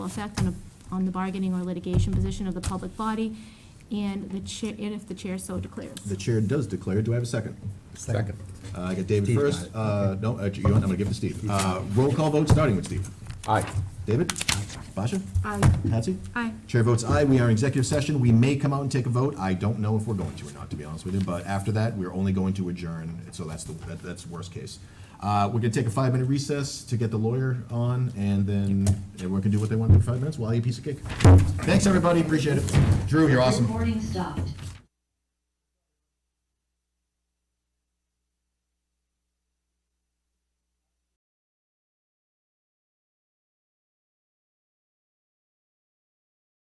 effect on, a- on the bargaining or litigation position of the public body, and the chair, and if the chair so declares. The chair does declare. Do I have a second? Second. Uh, I got David Steve got first. it. Uh, No, uh, you, I'm going to give it to Steve. Uh, Roll call vote, starting with Steve. Aye. David? Basha? Aye. Patsy? Aye. Chair votes aye. We are in executive session. We may come out and take a vote. I don't know if we're going to or not, to be honest with you. But after that, we're only going to adjourn. So that's the, that- that's worst case. Uh, We're going to take a five-minute recess to get the lawyer on, and then everyone can do what they want for five minutes while I eat a piece of cake. Thanks, everybody. Appreciate it. Drew, you're awesome. Recording stopped.